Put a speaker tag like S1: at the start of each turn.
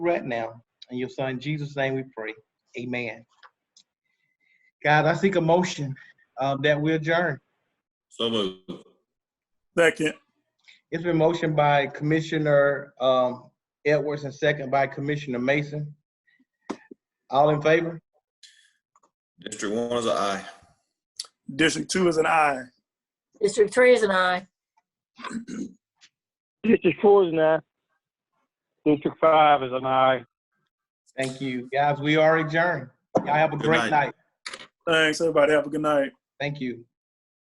S1: right now. In your son Jesus' name we pray. Amen. God, I seek a motion um, that we adjourn.
S2: So moved.
S3: Second.
S1: It's been motioned by Commissioner um, Edwards and second by Commissioner Mason. All in favor?
S2: District one is a aye.
S3: District two is an aye.
S4: District three is an aye.
S5: District four is an aye. District five is an aye.
S1: Thank you. Guys, we are adjourned. Y'all have a
S2: Good
S1: great
S2: night.
S1: night.
S3: Thanks, everybody. Have a good night.
S1: Thank you.